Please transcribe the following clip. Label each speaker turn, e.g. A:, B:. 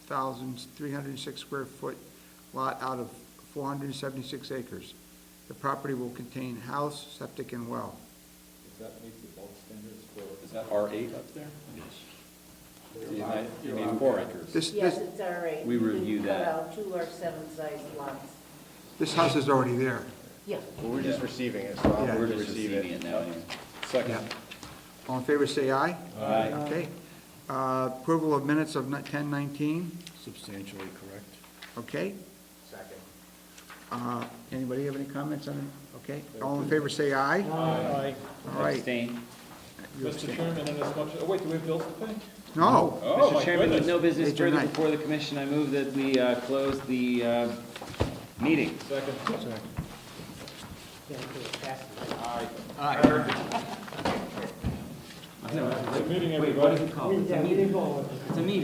A: 1,306 square foot lot out of 476 acres. The property will contain house, septic, and well.
B: Does that meet the bulk standards for, is that R eight up there? Yes. You might- you need four acres.
A: This,
C: Yes,
A: this,
C: it's all right.
B: We
C: You can
B: review that.
C: Cut out two or seven size lots.
A: this house is already there.
C: Yeah.
D: Well, we're just receiving it, so
A: Yeah.
D: I'll
B: We're
D: move to
B: just
D: receive
B: receiving
D: it.
B: it now, anyway.
A: Yeah.
B: Second.
A: All in favor, say aye.
B: Aye.
A: Okay. Uh, Approval of minutes of 1019,
D: Substantially correct.
A: okay?
D: Second.
A: Uh, Anybody have any comments on it? Okay, all in favor, say aye.
E: Aye.
A: All right.
B: Abstain.
A: You
E: Mr.
A: abstain.
E: Chairman, in as much, oh, wait, do we have bills to pay?
A: No,
E: Oh,
B: Mr.
E: my
B: Chairman, with
E: goodness.
B: no business
A: Page your
B: further
A: nine.
B: before the commission, I move that we uh, close the uh, meeting.
E: Second. Aye. Aye. Good meeting, everybody.
B: It's a meeting.